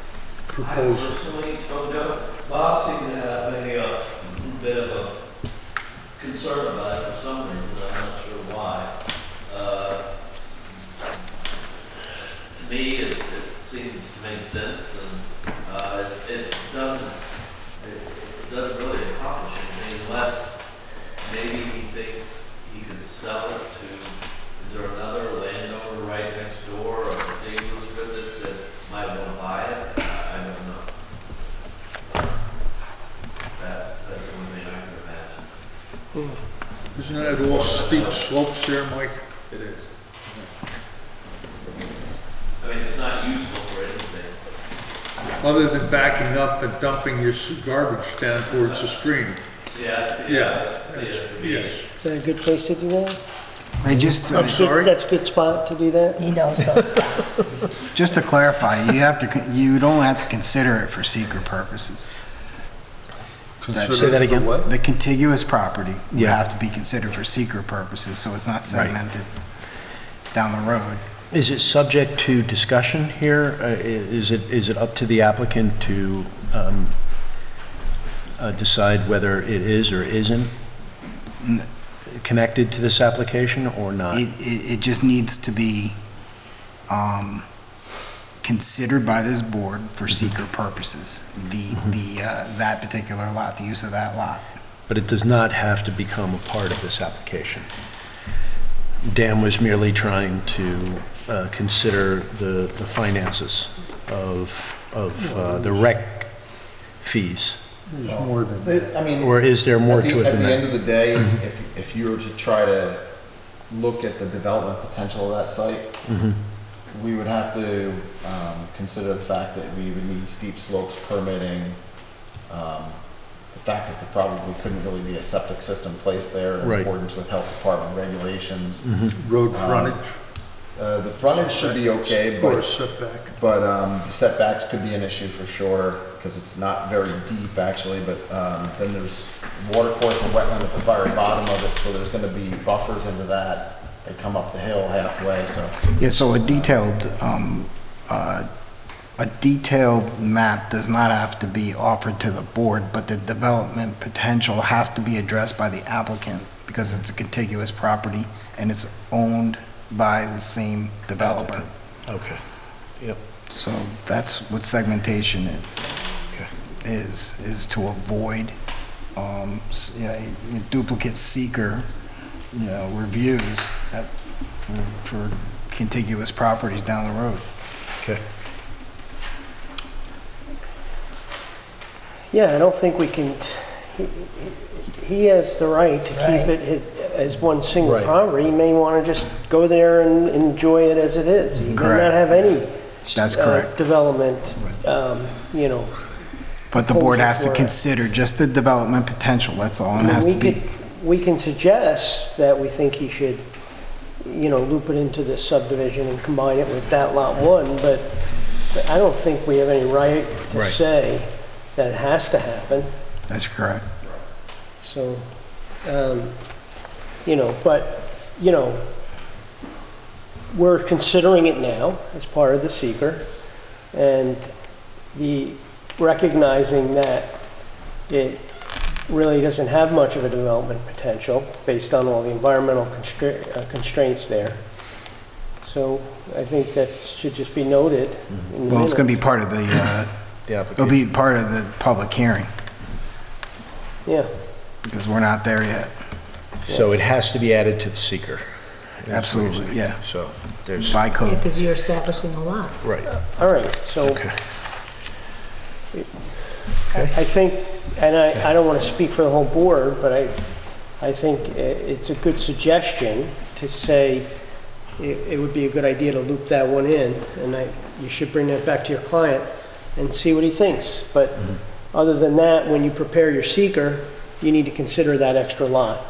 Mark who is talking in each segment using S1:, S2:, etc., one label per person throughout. S1: I
S2: proposed?
S1: personally told them, Bob seemed to have a uh, bit of a concern about it for some reason, I'm not sure why. Uh, To me, it, it seems to make sense and, uh, it's- it doesn't, it it doesn't really accomplish anything unless maybe he thinks he could sell it to, is there another landowner right next door or contiguous with it that might want to buy it? I I don't know. That, that's the only thing I can imagine.
S2: Isn't that all steep slopes there, Mike?
S1: It is. I mean, it's not useful for anything.
S2: Other than backing up and dumping your s- garbage down towards the stream?
S1: Yeah,
S2: Yeah,
S1: yeah,
S2: that's-
S1: yeah. we-
S2: yes.
S3: Is that a good place to do that?
S4: Hey, just,
S2: I'm
S4: uh,
S2: sorry?
S3: That's a good spot to do that?
S5: He knows those spots.
S4: just to clarify, you have to, con- you don't have to consider it for secret purposes.
S2: Consider
S4: Say
S6: that
S2: it for
S6: again?
S2: what?
S4: The contiguous property would
S6: Yeah.
S4: have to be considered for secret purposes, so it's not segmented down the road.
S6: Is it subject to discussion here? Uh, i- Is it, is it up to the applicant to um, uh, decide whether it is or isn't
S4: N-
S6: connected to this application or not?
S4: It, it, it just needs to be, um, considered by this board for secret purposes. The, the, uh, that particular lot, the use of that lot.
S6: But it does not have to become a part of this application. Dan was merely trying to uh, consider the the finances of, of uh, the rec fees.
S2: There's more than that.
S7: I mean.
S6: Or is there more
S7: at the-
S6: to it
S7: At
S6: than
S7: the
S6: that? Mm-hmm.
S7: end of the day, if, if you were to try to look at the development potential of that site,
S6: Mm-hmm.
S7: we would have to, um, consider the fact that we would need steep slopes permitting, um, the fact that there probably couldn't really be a septic system placed there in
S6: Right. Mm-hmm.
S7: accordance with health department regulations.
S2: Road frontage?
S7: Uh, the frontage should be okay,
S2: Or
S7: but
S2: a setback?
S7: but um, setbacks could be an issue for sure, because it's not very deep actually, but um, then there's water course and wetland at the very bottom of it, so there's gonna be buffers into that. They come up the hill halfway, so.
S4: Yeah, so a detailed, um, uh, a detailed map does not have to be offered to the board, but the development potential has to be addressed by the applicant because it's a contiguous property and it's owned by the same developer.
S6: Okay.
S4: So that's what segmentation i-
S6: Okay.
S4: is, is to avoid um, s- you know, duplicate seeker, you know, reviews at- for- for contiguous properties down the road.
S6: Okay.
S3: Yeah, I don't think we can, t- he- he- he has the right to keep
S5: Right.
S3: it his- as one single
S6: Right.
S3: property. He may want to just go there and enjoy it as it is. He may not
S4: Correct.
S3: have any
S4: That's
S3: uh,
S4: correct.
S3: development, um, you know.
S4: But the board has to
S3: Proposal for it.
S4: consider just the development potential, that's all, and it has
S3: We
S4: to be,
S3: could- We can suggest that we think he should, you know, loop it into this subdivision and combine it with that lot one, but I don't think we have any right to
S6: Right.
S3: say that it has to happen.
S4: that's correct.
S3: So, um, you know, but, you know, we're considering it now as part of the seeker, and the, recognizing that it really doesn't have much of a development potential based on all the environmental constra- uh, constraints there. So I think that should just be noted. in the
S4: Well, it's gonna be
S3: minutes.
S4: part of the, uh,
S6: The
S4: it'll
S6: application.
S4: be part of the public hearing,
S3: Yeah,
S4: because we're not there yet.
S6: So it has to be added to the seeker.
S4: Absolutely, yeah.
S6: So there's,
S4: By
S5: Yeah,
S4: code,
S5: because you're establishing a lot.
S6: right,
S3: all right, so.
S6: okay.
S3: I think, and I, I don't want to speak for the whole board, but I, I think i- it's a good suggestion to say it, it would be a good idea to loop that one in, and I, you should bring that back to your client and see what he thinks. But other than that, when you prepare your seeker, you need to consider that extra lot,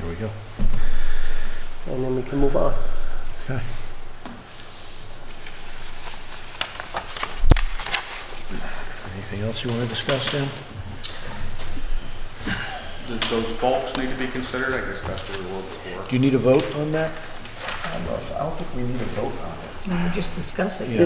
S6: There we go.
S3: and then we can move on.
S6: Okay. Anything else you want to discuss, Dan?
S8: Does those bulks need to be considered? I guess that's what we were before.
S6: Do you need a vote on that?
S7: I don't know if, I don't think we need a vote on it.
S5: And we just discuss it.
S6: Yeah.